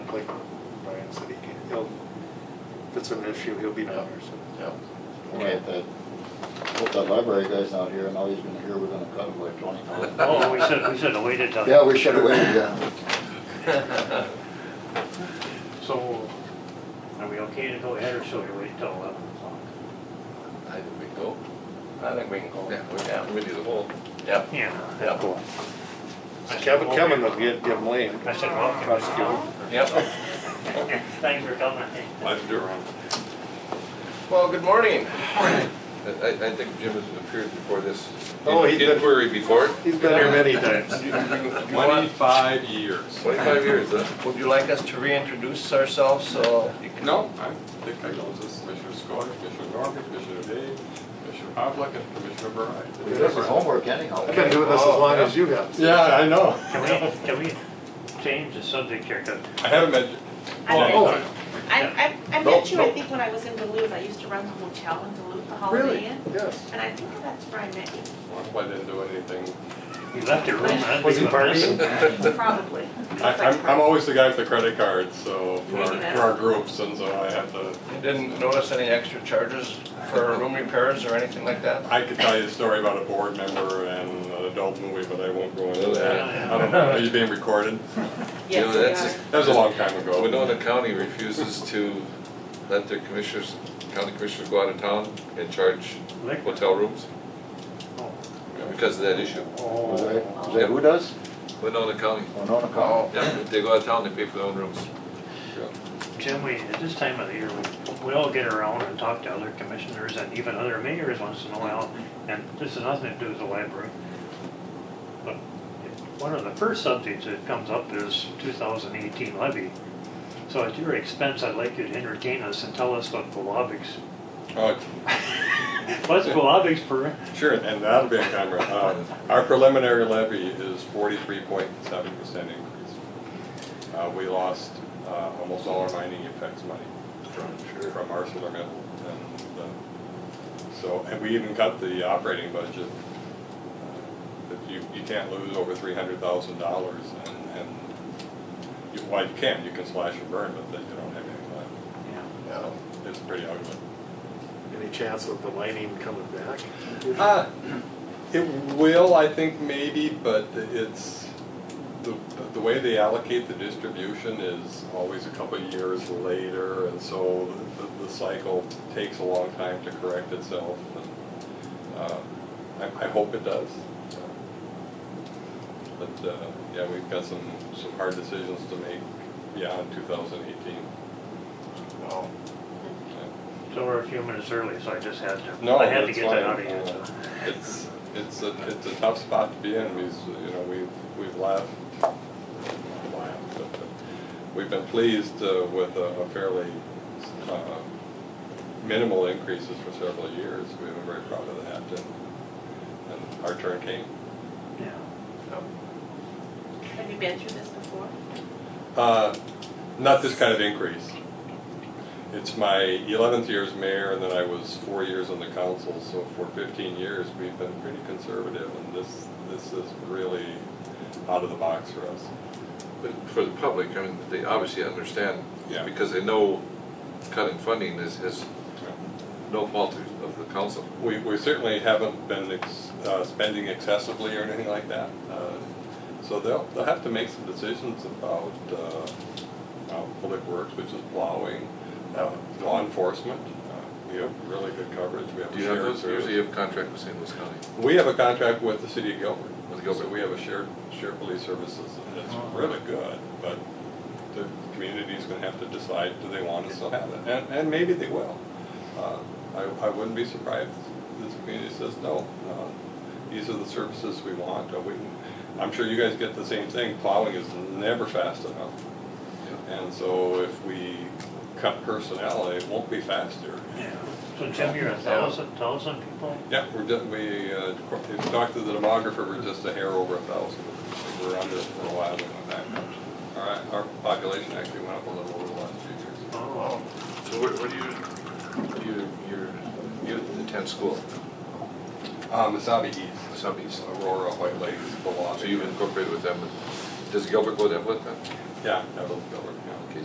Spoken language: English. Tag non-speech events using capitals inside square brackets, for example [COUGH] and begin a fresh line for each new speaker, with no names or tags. like Brian said, he can, he'll, if it's an issue, he'll be down there, so.
Yeah.
We're at that, hope that library guy's not here, and all he's gonna hear, we're gonna cut him by twenty thousand.
Oh, we should, we should have waited till.
Yeah, we should have waited, yeah.
So,
Are we okay to go ahead or should we wait till eleven o'clock?
I think we can go. I think we can go.
Yeah.
Yeah.
Committee of the whole.
Yeah.
Yeah.
Yeah.
Kevin, Kevin will get, get blamed.
I said, well,
Prosecute.
Yep.
[LAUGHS] thanks for coming.
Well, good morning. I, I I think Jim has appeared before this.
Oh, he did.
Inquiry before.
He's been here many times.
Twenty-five years.
Twenty-five years, huh?
Would you like us to reintroduce ourselves so you can?
No, I think I know this, Commissioner Scott, Commissioner Norman, Commissioner Day, Commissioner Havlic, and Commissioner Bride.
This is homework anyhow.
I've been doing this as long as you have.
Yeah, I know.
Can we, can we change the subject here? 'Cause
I haven't met you.
I
Oh,
bet-
I, I, I
No,
met you, I
no.
think when I was in Duluth, I used to run the hotel in Duluth, the Holiday Inn.
Yes.
And I think that's where I met you,
Well, I didn't do anything.
You left your room. that'd be
Was he
a
partying?
mess.
[LAUGHS]
probably.
I, I'm, I'm always the guy with the credit card, so, for our, for our groups, and so I have to,
You didn't notice any extra charges for room repairs or anything like that?
I could tell you a story about a board member and an adult movie, but I won't go into that.
Yeah.
I don't know, are you being recorded?
You know, that's
Yes,
That was a long time
Well,
ago.
Winona County refuses to let their commissioners, county commissioners go out of town and charge
Liquor.
hotel rooms
Oh,
because of that issue.
Was
Oh,
that, was that who does?
Winona County,
Winona County.
yeah, if they go out of town, they pay for their own rooms.
Jim, we, at this time of the year, we- we all get around and talk to other commissioners and even other mayors once in a while, and this has nothing to do with the library. But one of the first subjects that comes up is 2018 levy. So at your expense, I'd like you to entertain us and tell us what Glavic's,
Oh,
what's Glavic's per,
Sure, and that'll be on camera. Uh, Our preliminary levy is forty-three point seven percent increase. Uh, We lost uh, almost all our mining effects money from from ArcelorMittal. and, uh, So, and we even cut the operating budget. But you, you can't lose over three hundred thousand dollars and, and, you- well, you can, you can slash and burn, but then you don't have anything left. So It's pretty ugly.
Any chance of the lining coming back?
Uh, It will, I think, maybe, but it's, the, the way they allocate the distribution is always a couple of years later, and so the, the cycle takes a long time to correct itself. and, uh, I, I hope it does. But, uh, yeah, we've got some, some hard decisions to make beyond 2018.
oh, so we're a few minutes early, so I just had to,
No,
I had to
that's
get that
fine.
out of you. so.
It's, it's a, it's a tough spot to be in, we've, you know, we've, we've laughed, not laughed, but, uh, we've been pleased uh, with a a fairly uh, minimal increases for several years, we were very proud of that, and, and our turn came.
Yeah.
have you been through this before?
Uh, Not this kind of increase. It's my 11th year as mayor, and then I was four years on the council, so for 15 years, we've been pretty conservative, and this, this is really out of the box for us.
But for the public, I mean, they obviously understand
Yeah.
because they know cutting funding is, is no fault of of the council.
We, we certainly haven't been ex- uh, spending excessively or anything like that. Uh, So they'll, they'll have to make some decisions about uh, uh, public works, which is plowing, uh, law enforcement. Uh, We have really good coverage, we have a
Do you have
shared
those,
service.
usually you have contract with St. Louis County.
We have a contract with the city of Gilbert.
With Gilbert.
So we have a shared, shared police services, and it's really good, but the community's gonna have to decide, do they want to still have it? And, and maybe they will. Uh, I, I wouldn't be surprised if this community says, no, uh, these are the services we want. Uh, we- I'm sure you guys get the same thing, plowing is never fast enough. And so if we cut personnel, it won't be faster.
Yeah. So Jim, you're a thousand, thousand people?
Yeah, we're, ju- we, uh, if you talk to the demographer, we're just a hair over a thousand. We're under for a while, we went back. All right, our population actually went up a little over the last few years.
Oh.
So where, where do you, you, you're, you attend school,
Uh, Masabi East,
Wasabi East?
Aurora, White Lakes, Bellagio.
So you've incorporated with them, does Gilbert go there with them?
Yeah, that was Gilbert, yeah.
Okay,